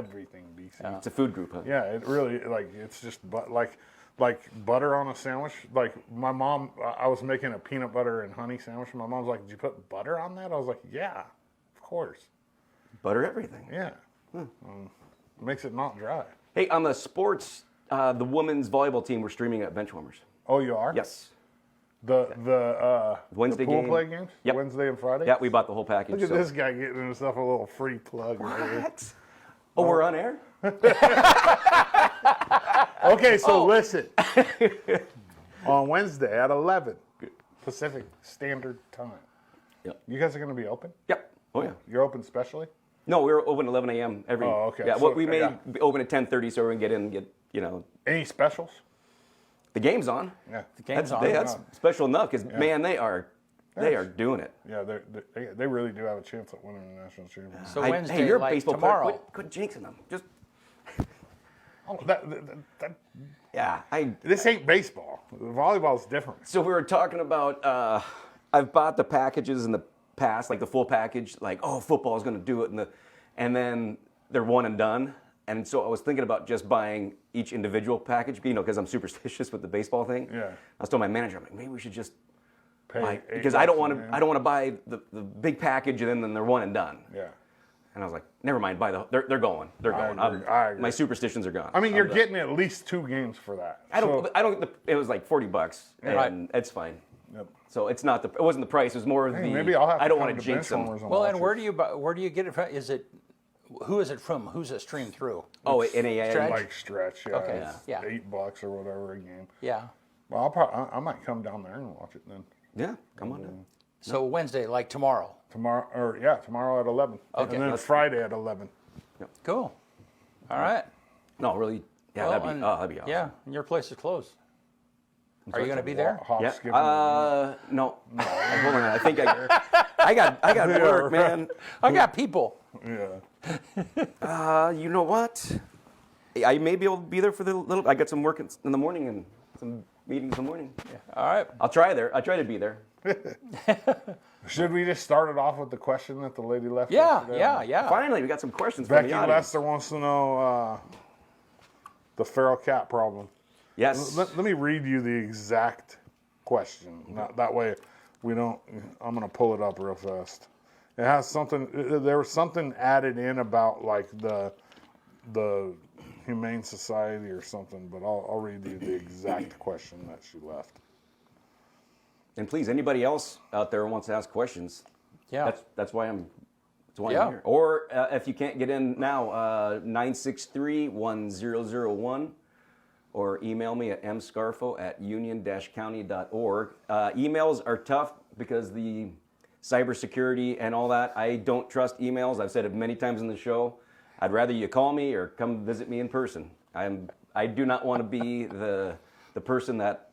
everything BC. Yeah. It's a food group, huh? it really like it's just but like like butter on a sandwich. Like my mom, I I was making a peanut butter and honey sandwich. And my mom's like, "Did you put butter on that?" I was like, "Yeah, of course. Butter everything. Yeah, Um, makes it not dry." Hey, on the sports, uh, the women's volleyball team, we're streaming at Benchwarmers. Oh, you are? Yes. The the uh, Wednesday the pool game. play games. Yep. Wednesday and Friday. Yeah, we bought the whole package. Look at so- this guy getting himself a little free plug. right here. What? Oh, we're on air? Okay, so listen. On Wednesday at 11 Pacific Standard Time. Yep. You guys are going to be open? Yep. Oh, yeah. You're open specially? No, we were open at 11 a.m. every. Oh, okay. Yeah, So- what we may yeah. be open at 10:30 so we can get in and get you know Any specials? the game's on. Yeah. That's, Game's on. yeah, that's special enough because man, they are they are doing it. Yeah, they're, they're, they- they really do have a chance at winning the national championship. So I- Wednesday, hey, you're a like baseball tomorrow. player. Quit, quit jinxing them. Just Oh, that, that, that- that- yeah. I this ain't baseball. Volleyball's different. so we were talking about uh, I've bought the packages in the past, like the full package, like oh football's going to do it, and the and then they're one and done. And so I was thinking about just buying each individual package, you know, because I'm superstitious with the baseball thing. Yeah. I was telling my manager, I'm like, maybe we should just Pay buy, eight because I don't bucks a want man. to I don't want to buy the, the big package and then, then they're one and done. Yeah. And I was like, never mind, buy the they're, they're going, they're I going. agree, I'm- I agree. My superstitions are gone. I mean, you're getting at least two games for that. I don't. So, I don't. get the- It was like forty bucks, Right. and that's fine. Yep. So it's not the. It wasn't the price. It was more of hey, the. maybe I'll have I to don't come want to jinx bench them. warmers Well, watch and it. where do you buy, where do you get it from? Is it who is it from? Who's it streamed through? Oh, NAIA. Stretch? Like stretch, yeah. Okay, it's yeah. Eight bucks or whatever a game. Yeah. Well, I'll probably, I, I might come down there and watch it then. Yeah, come mm-hmm. on. down. So Wednesday, like tomorrow. Tomorrow, or yeah, tomorrow at 11. Okay. And then Let's- Friday at 11. Cool. All right. No, really. Yeah, Well, that'd and- be. Oh, that'd be awesome. Yeah, and your place is closed. Are you going to be there? Hop, Yeah. skip, and- Uh, no. Hold on. I think I. I got. I got work, man. I got people. yeah. Uh, you know what? I may be able to be there for the little. I got some work in in the morning and some meetings in the morning. All right. I'll try there. I'll try to be there. Should we just start it off with the question that the lady left? Yeah, yesterday? yeah, yeah. Finally, we got some questions from Ah. Becky the audience. Lester wants to know uh, the feral cat problem. Yes. Let, let me read you the exact question. Not, that way, we don't. I'm gonna pull it up real fast. It has something. There was something added in about like the the Humane Society or something, but I'll, I'll read you the exact question that she left. And please, anybody else out there who wants to ask questions, Yeah. that's that's why I'm. That's why Yeah. I'm here. Or uh, if you can't get in now, uh, 963-1001 or email me at mscarfo at union-county.org. Uh, emails are tough because the cybersecurity and all that, I don't trust emails. I've said it many times in the show. I'd rather you call me or come visit me in person. I'm, I do not want to be the, the person that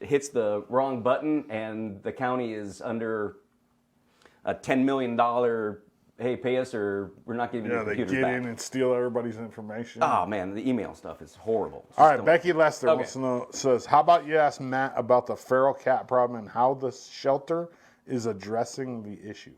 hits the wrong button and the county is under a $10 million, hey, pay us or we're not giving Yeah, you they computers get back. in and steal everybody's information. Oh man, the email stuff is horrible. It's All just right, don't- Becky Lester Okay. wants to know says, "How about you ask Matt about the feral cat problem and how the shelter is addressing the issue?"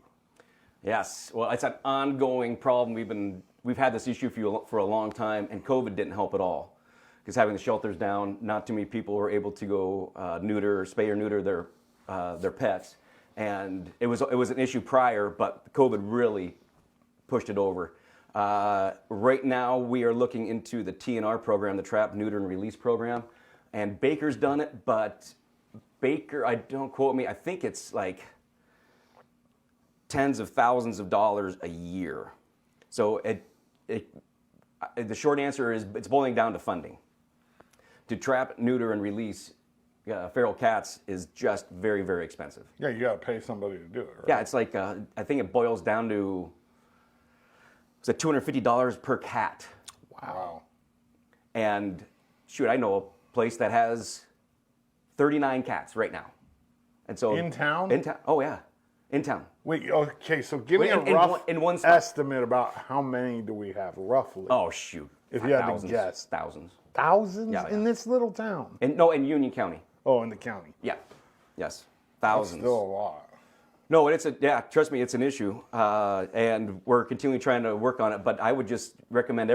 Yes, well, it's an ongoing problem. We've been we've had this issue for a- for a long time, and COVID didn't help at all because having the shelters down, not too many people were able to go uh, neuter or spay or neuter their uh, their pets, and it was it was an issue prior, but COVID really pushed it over. Uh, right now, we are looking into the TNR program, the Trap, Neuter, and Release program, and Baker's done it, but Baker, I don't quote me, I think it's like tens of thousands of dollars a year. So it, it, I- the short answer is it's boiling down to funding. To trap, neuter, and release uh, feral cats is just very, very expensive. Yeah, you got to pay somebody to do it. Right? Yeah, it's like uh, I think it boils down to it's like two hundred fifty dollars per cat, Wow. and shoot, I know a place that has thirty nine cats right now, and so In town? in town, oh yeah, in town. Wait. Okay. So give Wait, me a in- in rough one- in one spot. estimate about how many do we have roughly? Oh shoot, If you had to thousands, guess. thousands, Thousands Yeah, yeah. in this little town. and no, in Union County. Oh, in the county. Yeah. Yes. Thousands. Still a lot. No, and it's a yeah. Trust me, it's an issue, uh, and we're continually trying to work on it. But I would just recommend